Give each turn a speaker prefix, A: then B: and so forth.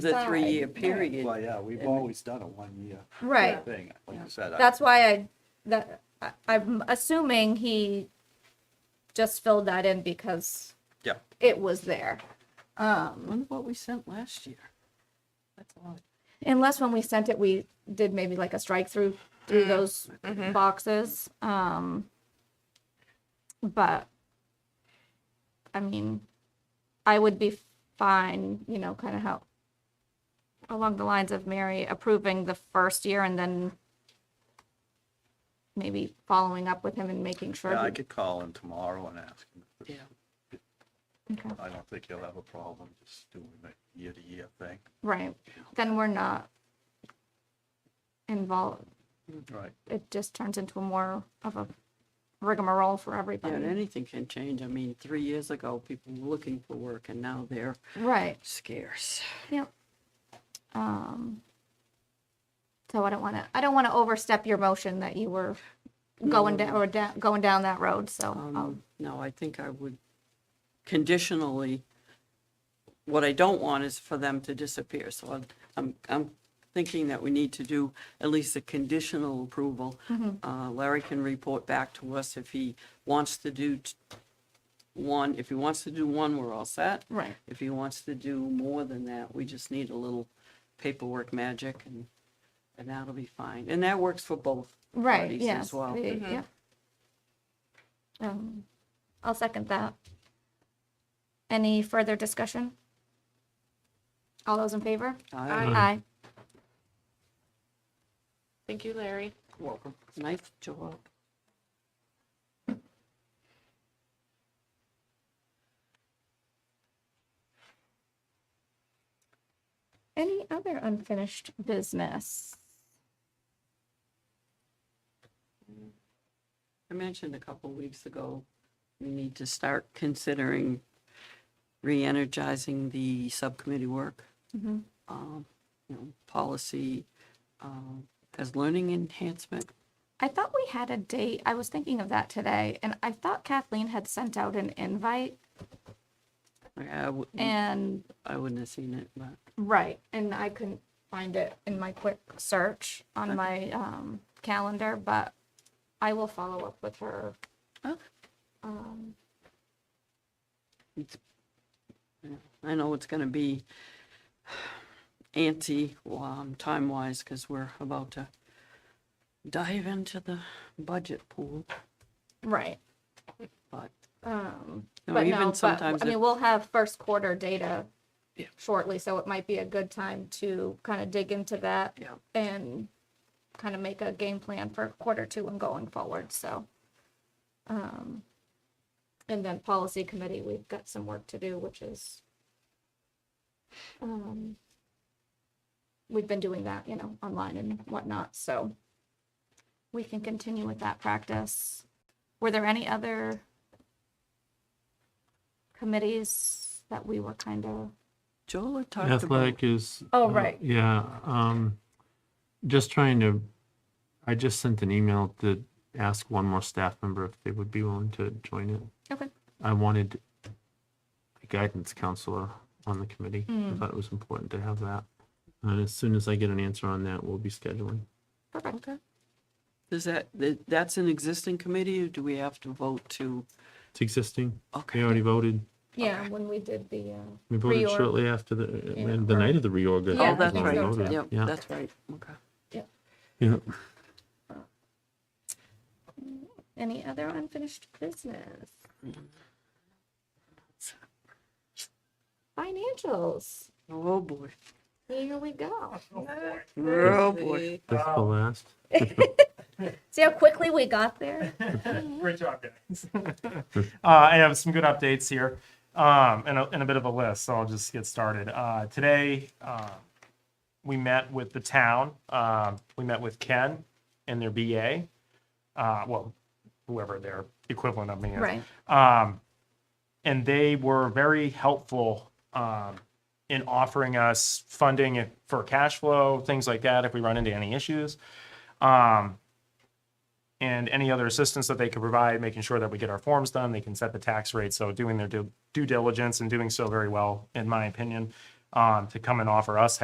A: the
B: Five.
A: three-year period.
C: Well, yeah, we've always done a one-year
B: Right.
C: thing, like you said. I-
B: That's why I, that, I- I'm assuming he just filled that in because
C: Yeah.
B: it was there. Um,
A: Wonder what we sent last year. That's a lot.
B: Unless when we sent it, we did maybe like a strike through
C: Mm-hmm.
B: through those boxes. Um, but I mean, I would be fine, you know, kind of how along the lines of Mary approving the first year and then maybe following up with him and making sure.
C: Yeah,
B: he-
C: I could call him tomorrow and ask him. if
A: Yeah.
C: it's-
B: Okay.
C: I don't think he'll have a problem just doing the year-to-year thing.
B: Right. Then we're not involved. Mm-hmm.
C: Right.
B: It just turns into a more of a rigmarole for
A: Yeah, and
B: everybody.
A: anything can change. I mean, three years ago, people were looking for work and now they're
B: Right.
A: scarce.
B: Yep. Um, so I don't want to, I don't want to overstep your motion that you were going down, or da- going down that road, so. I'll-
A: Um, No, I think I would conditionally, what I don't want is for them to disappear. So I'm- I'm, I'm thinking that we need to do at least a conditional approval. Uh, Larry can report back to us if he wants to do t- one, if he wants to do one, we're all set.
B: Right.
A: If he wants to do more than that, we just need a little paperwork magic and, and that'll be fine. And that works for both
B: Right,
A: parties
B: yes.
A: as well. Mm-hmm.
B: the- yep. Um, I'll second that. Any further discussion? All those in favor?
A: Aye.
B: Aye.
D: Thank you, Larry.
A: Welcome. Nice job.
B: Any other unfinished business?
A: I mentioned a couple weeks ago, we need to start considering re-energizing the subcommittee work.
B: Mhm.
A: Um, You know, policy um, as learning enhancement.
B: I thought we had a date. I was thinking of that today, and I thought Kathleen had sent out an invite
A: Like, I wou-
B: and,
A: I wouldn't have seen it, but
B: right, and I couldn't find it in my quick search on my um, calendar, but I will follow up with her.
A: Okay.
B: Um,
A: I know it's going to be anti um, time-wise because we're about to dive into the budget pool,
B: Right.
A: but
B: Um,
A: No,
B: But
A: even
B: no, but,
A: sometimes
B: I
A: it-
B: mean, we'll have first quarter data
A: Yeah.
B: shortly, so it might be a good time to kind of dig into that
A: Yeah.
B: and kind of make a game plan for quarter two and going forward, so. um, And then policy committee, we've got some work to do, which is um, we've been doing that, you know, online and whatnot, so we can continue with that practice. Were there any other committees that we were kind of,
A: Joel had talked about.
E: Athletic is.
B: Oh,
E: uh,
B: right.
E: Yeah, um, just trying to, I just sent an email to ask one more staff member if they would be willing to join it.
B: okay,
E: I wanted a guidance counselor on the committee.
B: Hmm.
E: I thought it was important to have that. And as soon as I get an answer on that, we'll be scheduling.
B: perfect.
A: Okay. Does that, that- that's an existing committee, or do we have to vote to?
E: It's existing. We
A: Okay,
E: already voted.
B: Yeah, when we did the, uh,
E: We voted
B: Reorg.
E: shortly after the,
B: Yeah.
E: the night of the reorg. I
B: Yeah,
A: oh,
E: think
A: that's
E: we
B: that's
A: right,
E: voted.
A: yep,
E: Yeah,
A: that's right, okay.
E: yeah.
B: any other unfinished business? Financials,
A: Oh, boy.
B: here we go.
A: Oh, boy.
E: That's the last.
B: See how quickly we got there?
F: Great job, guys. uh, I have some good updates here um, and, a, and a bit of a list, so I'll just get started. Uh, today, uh, we met with the town. Um, we met with Ken and their BA, uh, well, whoever their equivalent of me is.
B: Right.
F: Um, and they were very helpful um, in offering us funding for cash flow, things like that, if we run into any issues. Um, and any other assistance that they could provide, making sure that we get our forms done, they can set the tax rate. So doing their due due diligence and doing so very well, in my opinion. um, to come and offer us